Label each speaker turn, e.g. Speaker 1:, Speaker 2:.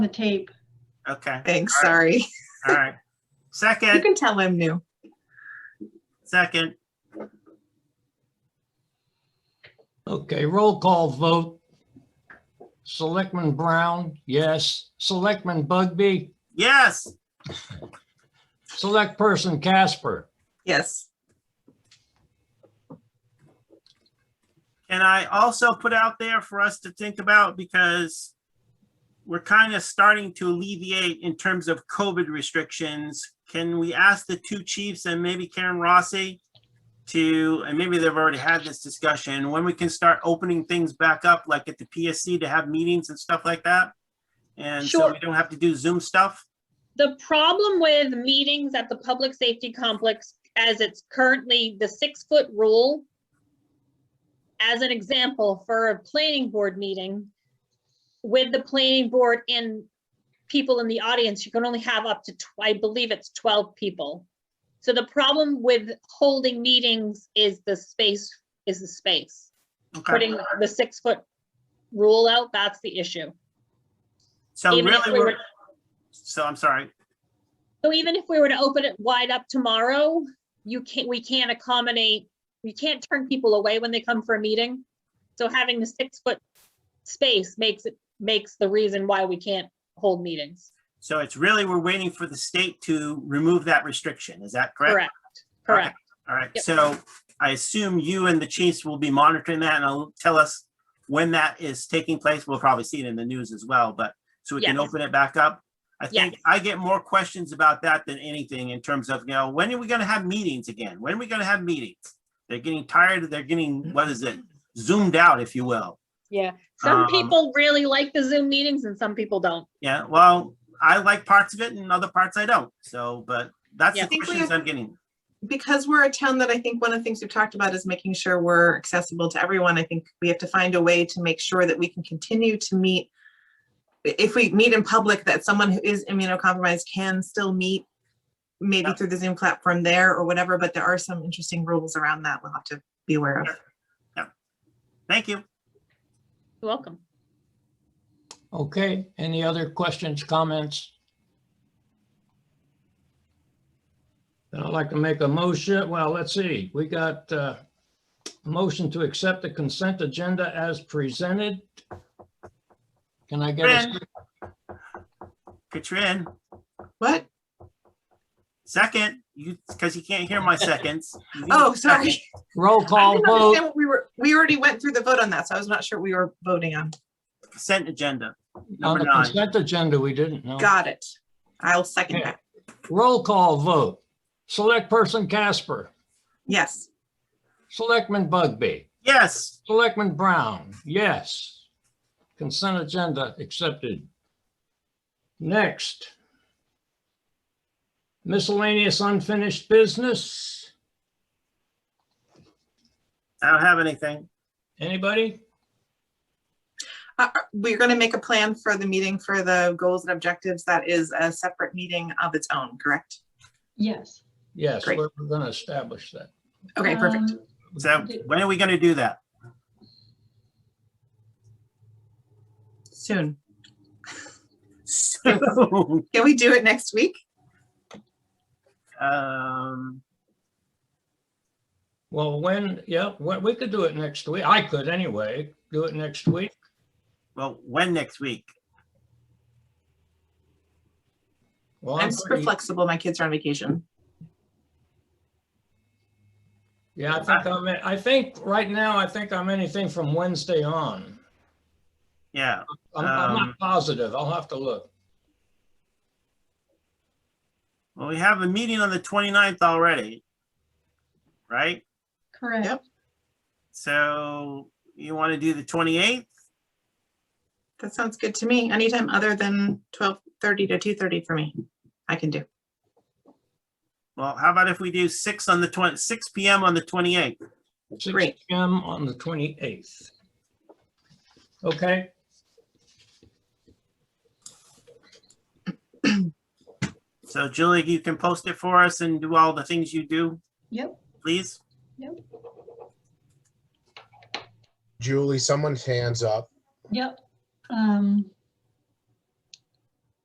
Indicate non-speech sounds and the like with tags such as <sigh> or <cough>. Speaker 1: the tape.
Speaker 2: Okay,
Speaker 3: Thanks, sorry.
Speaker 2: all right.
Speaker 3: You
Speaker 2: Second,
Speaker 3: can tell I'm new.
Speaker 2: second,
Speaker 4: Okay, roll call vote. Selectman Brown, yes. Selectman Bugby,
Speaker 2: yes,
Speaker 4: Select Person Casper.
Speaker 3: Yes,
Speaker 2: And I also put out there for us to think about because we're kind of starting to alleviate in terms of COVID restrictions. Can we ask the two chiefs and maybe Karen Rossi to, and maybe they've already had this discussion, when we can start opening things back up, like at the PSC to have meetings and stuff like that? And so
Speaker 5: Sure.
Speaker 2: we don't have to do Zoom stuff?
Speaker 5: The problem with meetings at the public safety complex as it's currently the six foot rule. As an example, for a planning board meeting, with the planning board and people in the audience, you can only have up to, tw- I believe it's twelve people. So the problem with holding meetings is the space, is the space.
Speaker 2: Okay.
Speaker 5: Putting the six foot rule out, that's the issue.
Speaker 2: So
Speaker 5: even if
Speaker 2: really,
Speaker 5: we were-
Speaker 2: we're- so I'm sorry.
Speaker 5: So even if we were to open it wide up tomorrow, you can't, we can't accommodate, you can't turn people away when they come for a meeting. So having the six foot space makes it, makes the reason why we can't hold meetings.
Speaker 2: So it's really, we're waiting for the state to remove that restriction. Is that correct?
Speaker 5: Correct, correct.
Speaker 2: All right,
Speaker 5: Yep.
Speaker 2: so I assume you and the chiefs will be monitoring that and will tell us when that is taking place. We'll probably see it in the news as well, but so we can
Speaker 5: Yes.
Speaker 2: open it back up. I think I get more questions about that than anything in terms of, you know, when are we gonna have meetings again? When are we gonna have meetings? They're getting tired, they're getting, what is it, zoomed out, if you will.
Speaker 5: Yeah, some
Speaker 2: Um,
Speaker 5: people really like the Zoom meetings and some people don't.
Speaker 2: Yeah, well, I like parts of it and other parts I don't, so, but that's
Speaker 5: Yeah.
Speaker 2: the
Speaker 5: I
Speaker 3: think we
Speaker 2: questions
Speaker 3: have-
Speaker 2: I'm getting.
Speaker 3: because we're a town that I think one of the things we've talked about is making sure we're accessible to everyone. I think we have to find a way to make sure that we can continue to meet. If we meet in public, that someone who is immunocompromised can still meet, maybe
Speaker 2: Yeah.
Speaker 3: through the Zoom platform there or whatever, but there are some interesting rules around that we'll have to be aware of.
Speaker 2: Thank you.
Speaker 5: You're Welcome.
Speaker 4: Okay, any other questions, comments? Then I'd like to make a motion, well, let's see, we got uh, a motion to accept the consent agenda as presented. Can I get a,
Speaker 2: Katrin, Katrin,
Speaker 3: What?
Speaker 2: second, you, because you can't hear
Speaker 3: <laughs>
Speaker 2: my seconds. You need
Speaker 3: Oh,
Speaker 2: a
Speaker 3: sorry.
Speaker 2: second.
Speaker 4: roll
Speaker 3: I
Speaker 4: call
Speaker 3: didn't
Speaker 4: vote?
Speaker 3: understand what We were, we already went through the vote on that, so I was not sure what we were voting on.
Speaker 2: Consent agenda,
Speaker 4: On
Speaker 2: number
Speaker 4: the
Speaker 2: nine.
Speaker 4: consent agenda, we didn't know.
Speaker 3: Got it. I'll second
Speaker 4: Yeah.
Speaker 3: that.
Speaker 4: Roll call vote. Select Person Casper,
Speaker 3: Yes.
Speaker 4: Selectman Bugby,
Speaker 2: Yes,
Speaker 4: Selectman Brown, yes. Consent agenda accepted. Next. Miscellaneous unfinished business.
Speaker 2: I don't have anything.
Speaker 4: Anybody?
Speaker 3: Uh, We're going to make a plan for the meeting for the goals and objectives. That is a separate meeting of its own, correct?
Speaker 1: Yes.
Speaker 4: Yes,
Speaker 3: Great.
Speaker 4: we're going to establish that.
Speaker 3: Okay, perfect.
Speaker 1: Um,
Speaker 2: So when are we gonna do
Speaker 3: <laughs>
Speaker 2: that? <laughs>
Speaker 3: Soon.
Speaker 2: So,
Speaker 3: <laughs> Can we do it next week?
Speaker 2: um,
Speaker 4: Well, when, yeah, we we could do it next week. I could anyway, do it next week.
Speaker 2: well, when next week?
Speaker 4: Well,
Speaker 3: I'm
Speaker 4: I'm
Speaker 3: super
Speaker 4: pretty-
Speaker 3: flexible. My kids are on vacation.
Speaker 4: Yeah, I think I'm, at- I think right now, I think I'm anything from Wednesday on.
Speaker 2: Yeah,
Speaker 4: I'm, I'm
Speaker 2: Um,
Speaker 4: not positive. I'll have to look.
Speaker 2: well, we have a meeting on the 29th already. Right?
Speaker 1: Correct.
Speaker 3: Yep.
Speaker 2: So you wanna do the twenty-eighth?
Speaker 3: That sounds good to me. Anytime other than 12:30 to 2:30 for me, I can do.
Speaker 2: Well, how about if we do six on the twenty, six P M on the twenty-eighth?
Speaker 4: Six
Speaker 3: Great.
Speaker 4: PM on the twenty-eighth. Okay.
Speaker 2: So Julie, you can post it for us and do all the things you do,
Speaker 1: Yep.
Speaker 2: please?
Speaker 6: Julie, someone's hands up.
Speaker 1: Yep. Um,